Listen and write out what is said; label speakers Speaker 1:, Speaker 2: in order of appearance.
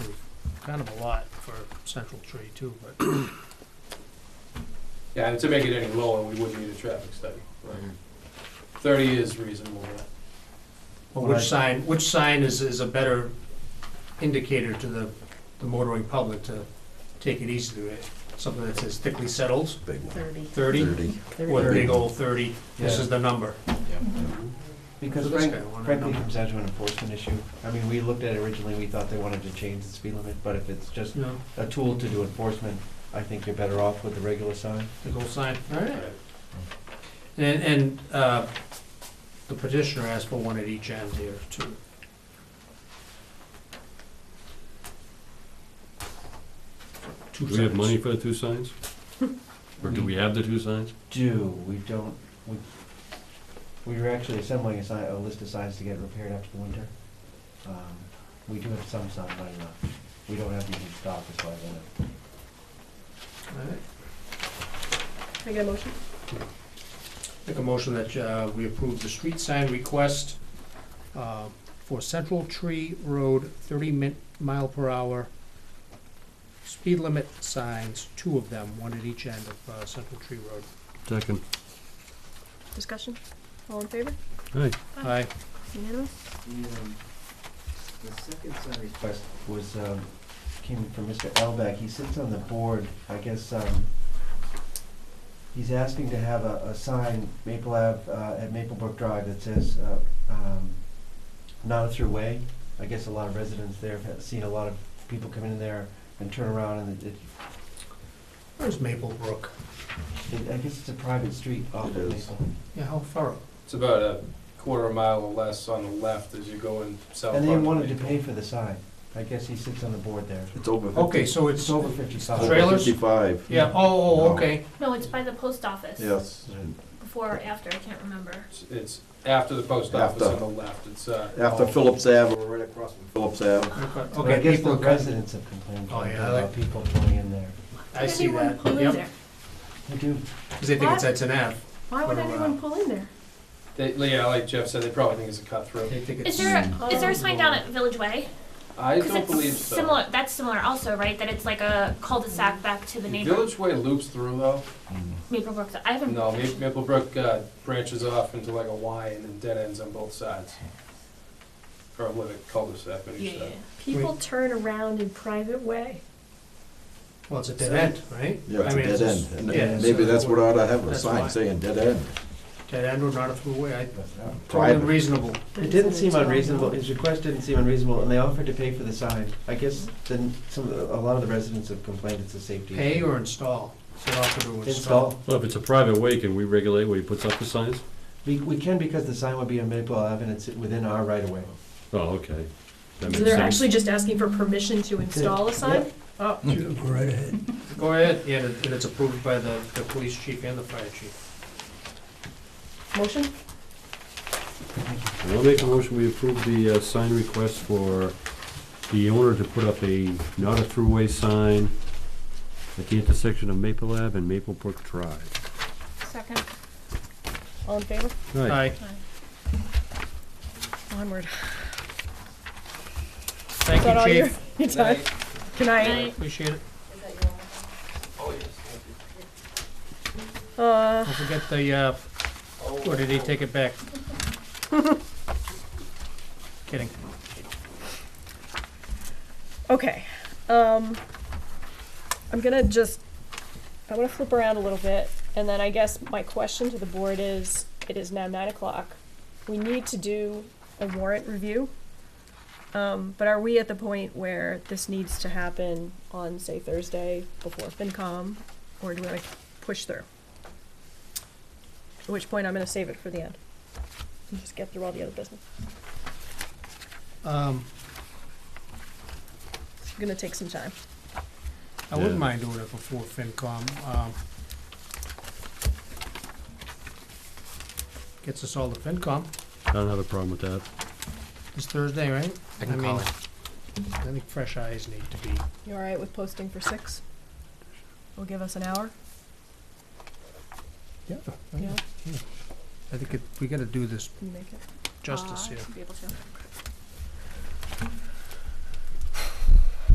Speaker 1: kind of a lot for Central Tree too, but
Speaker 2: Yeah, and to make it any lower, we would need a traffic study. Thirty is reasonable.
Speaker 1: but which sign, which sign is, is a better indicator to the, the motoring public to take it easy to it? Something that says thickly settled,
Speaker 3: Big one.
Speaker 4: Thirty.
Speaker 1: thirty,
Speaker 3: Thirty.
Speaker 1: or a
Speaker 4: Thirty.
Speaker 1: big old thirty, this
Speaker 5: Yeah.
Speaker 1: is the number.
Speaker 5: Because
Speaker 1: So this
Speaker 5: frank-
Speaker 1: guy wanted a
Speaker 5: frankly, it
Speaker 1: number.
Speaker 5: comes down to an enforcement issue. I mean, we looked at it originally, we thought they wanted to change the speed limit, but if it's just
Speaker 1: No,
Speaker 5: a tool to do enforcement, I think you're better off with the regular sign.
Speaker 1: big old sign, alright. And, and, uh, the petitioner asked for one at each end here too. Two
Speaker 6: Do we have
Speaker 1: signs.
Speaker 6: money for the two signs? Or do we have the two signs?
Speaker 5: Do, we don't, we, we were actually assembling a sign, a list of signs to get repaired after the winter. Um, We do have some sign money left. We don't have these in stock, as far as I know.
Speaker 1: Alright.
Speaker 4: Can I get a motion?
Speaker 1: Make a motion that uh, we approve the street sign request uh, for Central Tree Road, 30 min- mile per hour, speed limit signs, two of them, one at each end of uh, Central Tree Road.
Speaker 6: Second.
Speaker 4: Discussion? All in favor?
Speaker 6: Aye.
Speaker 1: Aye.
Speaker 4: Unanimous?
Speaker 5: The um, the second sign request was, um, came from Mr. Elbeck. He sits on the board, I guess, um, he's asking to have a, a sign, Maple Ave, uh, at Maplebrook Drive that says, uh, um, not a through way. I guess a lot of residents there have seen a lot of people come in there and turn around and it,
Speaker 1: Where's Maple Brook?
Speaker 5: it, I guess it's a private street off of
Speaker 3: It
Speaker 5: Maple.
Speaker 3: is.
Speaker 1: Yeah, how far?
Speaker 2: It's about a quarter mile or less on the left as you go in south.
Speaker 5: And they
Speaker 2: Park.
Speaker 5: wanted to pay for the sign. I guess he sits on the board there.
Speaker 3: It's over fifty.
Speaker 1: Okay, so
Speaker 5: It's
Speaker 1: it's,
Speaker 5: over fifty-five.
Speaker 3: Over
Speaker 1: Trailers?
Speaker 3: Fifty-five,
Speaker 1: yeah, oh, oh,
Speaker 3: No.
Speaker 1: okay.
Speaker 7: No, it's by the post office.
Speaker 3: yes.
Speaker 7: Before or after, I can't remember.
Speaker 2: It's- It's after the post office on
Speaker 3: After.
Speaker 2: the left, it's, uh.
Speaker 3: After Phillips Ave, we're right across from Phillips Ave.
Speaker 5: But I
Speaker 1: Okay,
Speaker 5: guess the
Speaker 1: people, are cut-
Speaker 5: residents have complained
Speaker 1: Oh, yeah, I
Speaker 5: about
Speaker 1: like-
Speaker 5: people going in there.
Speaker 1: I
Speaker 7: Why
Speaker 1: see
Speaker 7: would anyone
Speaker 1: that,
Speaker 7: pull in
Speaker 1: yep,
Speaker 7: there?
Speaker 5: They do.
Speaker 1: because they think it's at an Ave.
Speaker 4: Why would
Speaker 1: What about-
Speaker 4: anyone pull in there?
Speaker 2: They, yeah, like Jeff said, they probably think it's a cut through.
Speaker 1: They think
Speaker 7: Is
Speaker 1: it's,
Speaker 7: there, a- is there
Speaker 4: Oh.
Speaker 7: a sign down at Village Way?
Speaker 2: Hmm. I
Speaker 7: 'Cause
Speaker 2: don't
Speaker 7: it's
Speaker 2: believe so.
Speaker 7: Similar, that's similar also, right? That it's like a cul-de-sac back to the neighbor,
Speaker 2: Village Way loops through though.
Speaker 1: Mm.
Speaker 7: Maple Brook. I haven't,
Speaker 2: No, Ma- Maplebrook, uh, branches off into like a Y and then dead ends on both sides. Or a little cul-de-sac on
Speaker 7: yeah,
Speaker 2: each
Speaker 7: yeah.
Speaker 2: side.
Speaker 4: People turn around in private way.
Speaker 1: well, it's a dead end, right?
Speaker 3: Yeah, it's
Speaker 1: I
Speaker 3: a
Speaker 1: mean,
Speaker 3: dead
Speaker 1: just-
Speaker 3: end. And-
Speaker 1: yeah,
Speaker 3: And
Speaker 1: it's
Speaker 3: maybe
Speaker 1: a-
Speaker 3: that's what ought to have a
Speaker 1: That's why.
Speaker 3: sign saying dead end.
Speaker 1: Dead end or not a throughway, I, totally
Speaker 3: Private.
Speaker 1: reasonable.
Speaker 5: It didn't seem unreasonable, his request didn't seem unreasonable, and they offered to pay for the sign. I guess then some, of the- a lot of the residents have complained it's a safety.
Speaker 1: Pay
Speaker 5: issue.
Speaker 1: or install? Is it offered to
Speaker 5: Install.
Speaker 6: Well, if it's a private way, can we regulate where he puts up the signs?
Speaker 5: We, we can because the sign would be on Maple Ave and it's within our right of way.
Speaker 6: Oh, okay. That
Speaker 4: So
Speaker 6: makes
Speaker 4: they're
Speaker 6: sense.
Speaker 4: actually just asking for permission to install a sign? Oh,
Speaker 1: Go ahead, yeah, and it's approved by the, the police chief and the fire chief.
Speaker 4: motion?
Speaker 6: I'll make a motion, we approve the uh, sign request for the owner to put up a not a throughway sign at the intersection of Maple Ave and Maple Brook Drive.
Speaker 7: Second.
Speaker 4: All in favor?
Speaker 6: Right.
Speaker 1: Aye,
Speaker 4: Onward. Is that
Speaker 1: thank
Speaker 4: all
Speaker 1: you,
Speaker 4: your,
Speaker 1: chief,
Speaker 4: your time? Good night.
Speaker 7: Aye.
Speaker 1: appreciate it.
Speaker 4: Uh,
Speaker 1: Don't forget the, uh, or did he take it back? Kidding.
Speaker 4: okay. Um, I'm gonna just, I'm gonna flip around a little bit, and then I guess my question to the board is, it is now nine o'clock. We need to do a warrant review. Um, but are we at the point where this needs to happen on, say, Thursday before FinCom, or do we wanna push through? At which point I'm gonna save it for the end. and Just get through all the other business.
Speaker 1: Um,
Speaker 4: It's gonna take some time.
Speaker 1: I wouldn't
Speaker 6: Yeah.
Speaker 1: mind doing it before FinCom, um. Gets us all to FinCom,
Speaker 6: I don't have a problem with that.
Speaker 1: it's Thursday, right?
Speaker 5: I can call
Speaker 1: mean, I think fresh eyes need to be,
Speaker 4: You all right with posting for six? Will give us an hour?
Speaker 1: yeah,
Speaker 4: Yeah.
Speaker 1: I think it, we gotta do this
Speaker 4: Can you make it?
Speaker 1: justice
Speaker 7: Uh, I
Speaker 1: here.
Speaker 7: should be able to.